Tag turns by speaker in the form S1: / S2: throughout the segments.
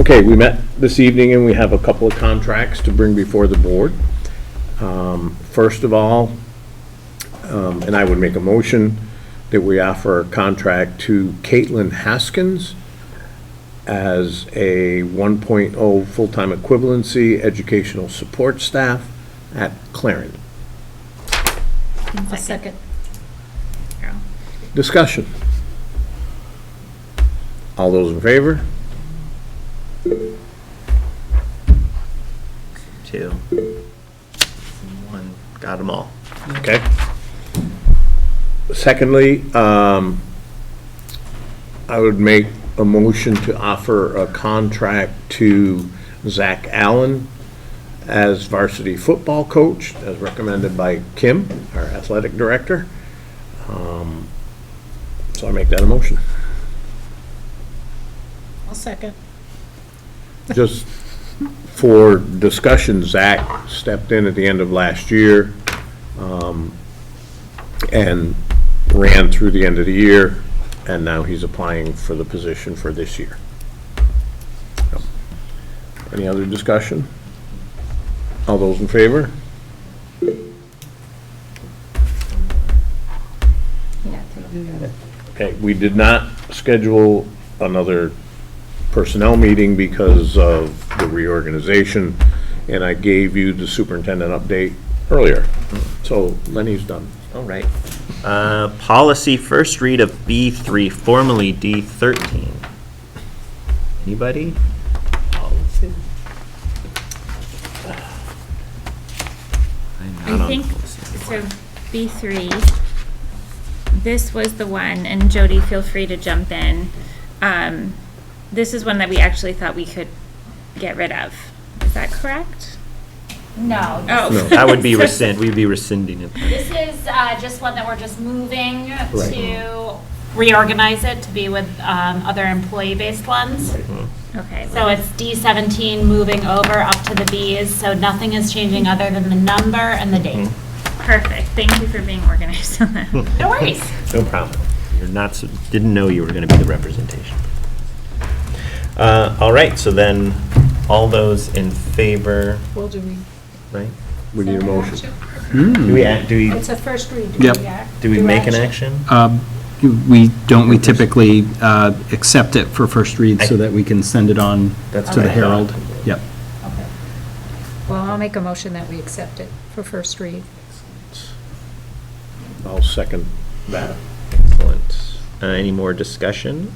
S1: Okay, we met this evening and we have a couple of contracts to bring before the board. Um, First of all, um, and I would make a motion that we offer a contract to Caitlin Haskins as a 1.0 full-time equivalency educational support staff at Clarendon.
S2: A second.
S1: Discussion. All those in favor?
S3: two, one, got them all.
S1: Okay. Secondly, um, I would make a motion to offer a contract to Zach Allen as varsity football coach, as recommended by Kim, our athletic director. Um, So I make that a motion.
S2: I'll second.
S1: Just for discussion, Zach stepped in at the end of last year um, and ran through the end of the year, and now he's applying for the position for this year. Yep. Any other discussion? All those in favor? Okay, we did not schedule another personnel meeting because of the reorganization, and I gave you the superintendent update earlier. So Lenny's done.
S3: All right. Uh, Policy first read of B3, formerly D13. Anybody? I'm not
S4: I
S3: on
S4: think,
S3: policy.
S4: so B3, this was the one, and Jody, feel free to jump in. Um, This is one that we actually thought we could get rid of. Is that correct?
S5: No,
S4: Oh.
S1: No.
S3: That would be rescind, we'd be rescinding it.
S5: this is uh, just one that we're just moving
S1: Right.
S5: to reorganize it to be with um, other employee-based ones.
S4: Okay.
S5: So it's D17 moving over up to the Bs, so nothing is changing other than the number and the date.
S4: Perfect. Thank you for being organized on that.
S5: No worries.
S3: No problem. You're not, so- didn't know you were going to be the representation. Uh, All right, so then, all those in favor,
S2: Well, do we?
S3: right?
S1: We need a motion.
S3: Do we, act- do we,
S2: It's a first read.
S6: Yep.
S3: do we make an action?
S6: We, don't we typically uh, accept it for first read so that we can send it on
S3: That's
S6: to
S3: what
S6: the
S3: I thought.
S6: Herald? Yep.
S2: Well, I'll make a motion that we accept it for first read.
S1: I'll second that.
S3: Excellent. Uh, Any more discussion?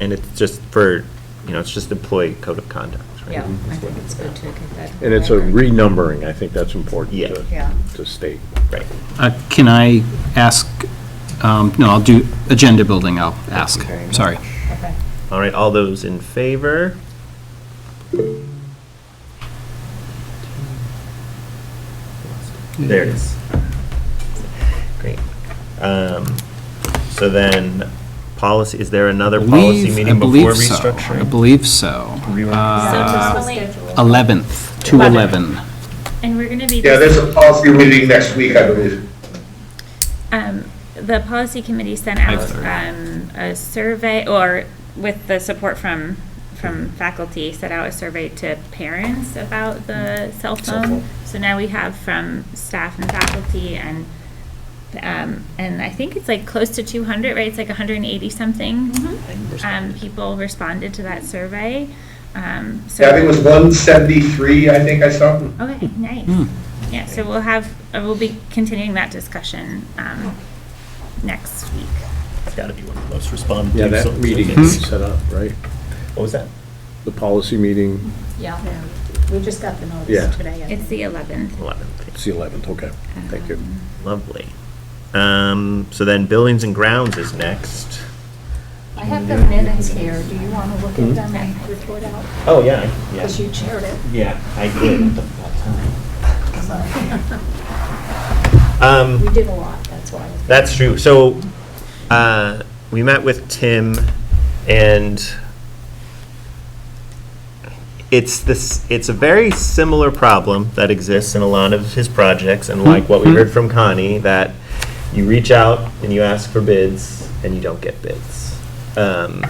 S3: And it's just for, you know, it's just employee code of conduct, right?
S2: Yeah, I think it's good to get that.
S1: And it's a renumbering, I think that's important
S3: Yeah.
S2: Yeah.
S1: to, to state.
S3: Right.
S6: Uh, Can I ask, um, no, I'll do agenda building, I'll ask,
S3: very much.
S6: sorry.
S2: Okay.
S3: All right, all those in favor? There it is. Great. Um, So then, policy, is there another policy
S6: Believe- I
S3: meeting
S6: believe
S3: before
S6: so. I
S3: restructuring?
S6: believe so.
S5: So
S6: Uh,
S5: just really,
S6: 11th, 2/11.
S4: And we're going to be.
S7: Yeah, there's a policy meeting next week, I believe.
S4: Um, The policy committee sent out
S6: 5:30.
S4: um, a survey, or with the support from, from faculty, sent out a survey to parents about the cell phone. So now we have from staff and faculty and, um, and I think it's like close to 200, right? It's like 180 something. um, People responded to that survey. Um, So.
S7: Yeah, I think it was 173, I think I saw.
S4: Okay, nice. Yeah, so we'll have, uh, we'll be continuing that discussion um, next week.
S3: It's got to be one of the most responsive.
S1: Yeah, that meeting is set up, right?
S3: What was that?
S1: The policy meeting,
S5: yeah.
S2: We just got the
S1: Yeah.
S2: notice today. I
S4: It's
S2: think.
S4: the 11th.
S3: 11th.
S1: it's the 11th, okay. Thank you.
S3: Lovely. Um, So then buildings and grounds is next.
S2: I have the minutes here. Do you want to look
S1: Mm-hmm.
S2: at them and report out?
S3: Oh, yeah.
S2: Because you chaired it.
S3: Yeah, I did.
S1: Mm-hmm.
S3: Um,
S2: We did a lot, that's why.
S3: That's true. So, uh, we met with Tim and it's this, it's a very similar problem that exists in a lot of his projects and like what we heard from Connie, that you reach out and you ask for bids and you don't get bids. Um,